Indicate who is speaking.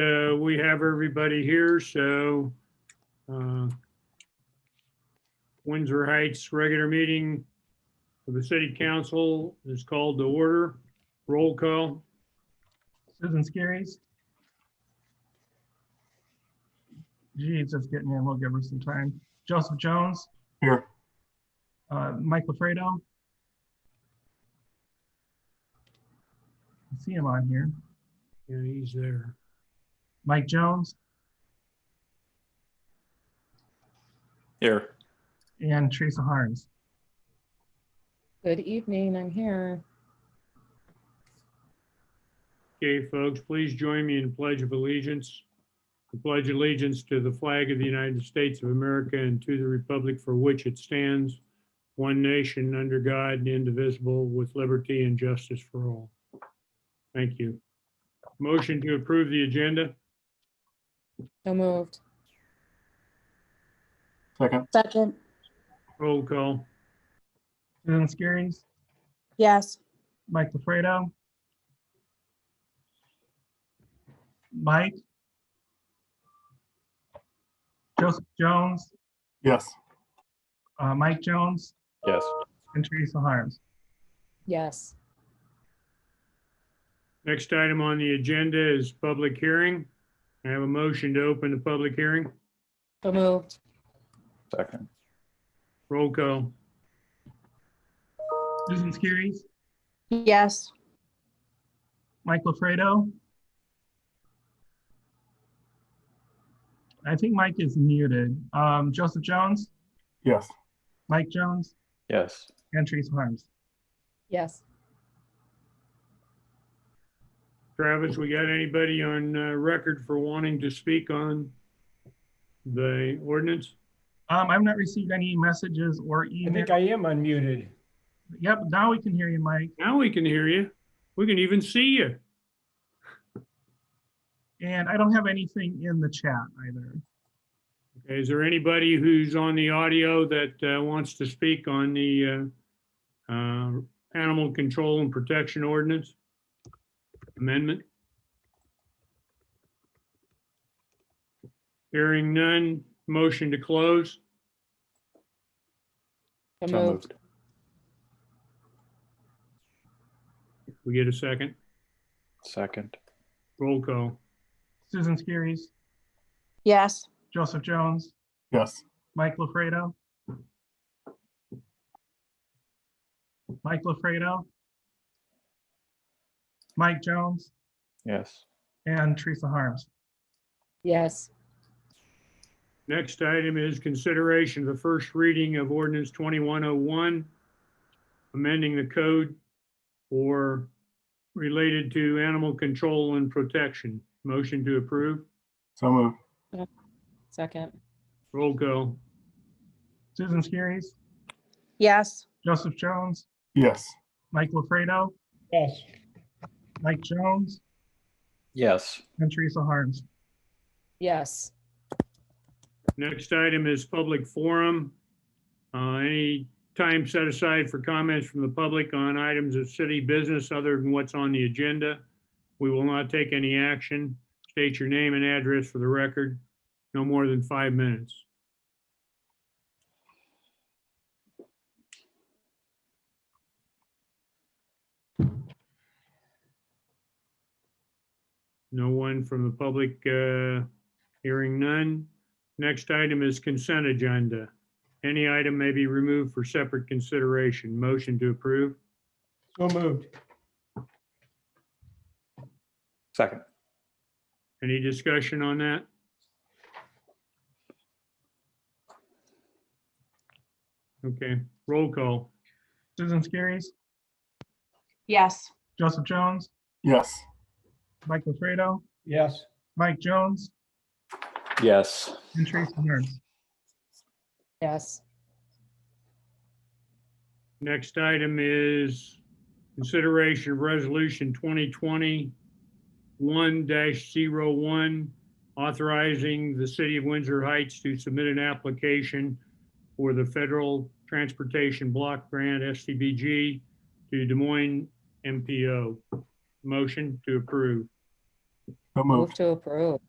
Speaker 1: uh, we have everybody here, so uh, Windsor Heights regular meeting of the city council is called to order. Roll call.
Speaker 2: Susan Skerrys. Gee, it's just getting in. We'll give her some time. Joseph Jones.
Speaker 3: Here.
Speaker 2: Uh, Mike LaFredo. I See him on here.
Speaker 1: Yeah, he's there.
Speaker 2: Mike Jones
Speaker 3: Here.
Speaker 2: and Teresa Harms.
Speaker 4: Good evening, I'm here.
Speaker 1: Okay, folks, please join me in pledge of allegiance. I pledge allegiance to the flag of the United States of America and to the republic for which it stands, one nation under God, indivisible, with liberty and justice for all. Thank you. Motion to approve the agenda.
Speaker 4: So moved.
Speaker 3: Second.
Speaker 5: Second,
Speaker 1: Roll call.
Speaker 2: Susan Skerrys,
Speaker 5: yes.
Speaker 2: Mike LaFredo. Mike. Joseph Jones,
Speaker 3: Yes.
Speaker 2: uh, Mike Jones
Speaker 3: Yes.
Speaker 2: and Teresa Harms.
Speaker 4: Yes.
Speaker 1: Next item on the agenda is public hearing. I have a motion to open the public hearing.
Speaker 4: So moved.
Speaker 3: Second.
Speaker 1: Roll call.
Speaker 2: Susan Skerrys,
Speaker 5: Yes.
Speaker 2: Mike LaFredo. I think Mike is muted. Um, Joseph Jones,
Speaker 3: Yes.
Speaker 2: Mike Jones,
Speaker 3: Yes.
Speaker 2: and Teresa Harms.
Speaker 4: Yes.
Speaker 1: Travis, we got anybody on uh, record for wanting to speak on the ordinance?
Speaker 2: Um, I've not received any messages or
Speaker 6: I
Speaker 2: email.
Speaker 6: think I am unmuted.
Speaker 2: Yep, now we can hear you, Mike.
Speaker 1: Now we can hear you. We can even see you.
Speaker 2: And I don't have anything in the chat either.
Speaker 1: Okay, Is there anybody who's on the audio that uh, wants to speak on the uh, uh, animal control and protection ordinance amendment? Hearing none, motion to close.
Speaker 4: So
Speaker 3: So
Speaker 4: moved.
Speaker 3: moved.
Speaker 1: We get a second.
Speaker 3: Second.
Speaker 1: Roll call.
Speaker 2: Susan Skerrys,
Speaker 5: Yes.
Speaker 2: Joseph Jones,
Speaker 3: Yes.
Speaker 2: Mike LaFredo. Mike LaFredo. Mike Jones
Speaker 3: Yes.
Speaker 2: and Teresa Harms.
Speaker 4: Yes.
Speaker 1: Next item is consideration of the first reading of ordinance 2101, amending the code for related to animal control and protection. Motion to approve.
Speaker 3: So move.
Speaker 4: Second.
Speaker 1: Roll call.
Speaker 2: Susan Skerrys,
Speaker 5: Yes.
Speaker 2: Joseph Jones,
Speaker 3: Yes.
Speaker 2: Mike LaFredo,
Speaker 6: Yes.
Speaker 2: Mike Jones,
Speaker 3: Yes.
Speaker 2: and Teresa Harms.
Speaker 4: Yes.
Speaker 1: Next item is public forum. Uh, Any time set aside for comments from the public on items of city business other than what's on the agenda. We will not take any action. State your name and address for the record. No more than five minutes. No one from the public, uh, hearing none. Next item is consent agenda. Any item may be removed for separate consideration. Motion to approve.
Speaker 6: So moved.
Speaker 3: Second.
Speaker 1: Any discussion on that? Okay, roll call.
Speaker 2: Susan Skerrys,
Speaker 5: Yes.
Speaker 2: Joseph Jones,
Speaker 3: Yes.
Speaker 2: Mike LaFredo,
Speaker 6: Yes.
Speaker 2: Mike Jones,
Speaker 3: Yes.
Speaker 2: and Teresa Harms.
Speaker 4: Yes.
Speaker 1: Next item is consideration of resolution 2020 one authorizing the city of Windsor Heights to submit an application for the Federal Transportation Block Grant, STBG, to Des Moines MPO. Motion to approve.
Speaker 7: So
Speaker 4: Move
Speaker 7: moved.
Speaker 4: to approve.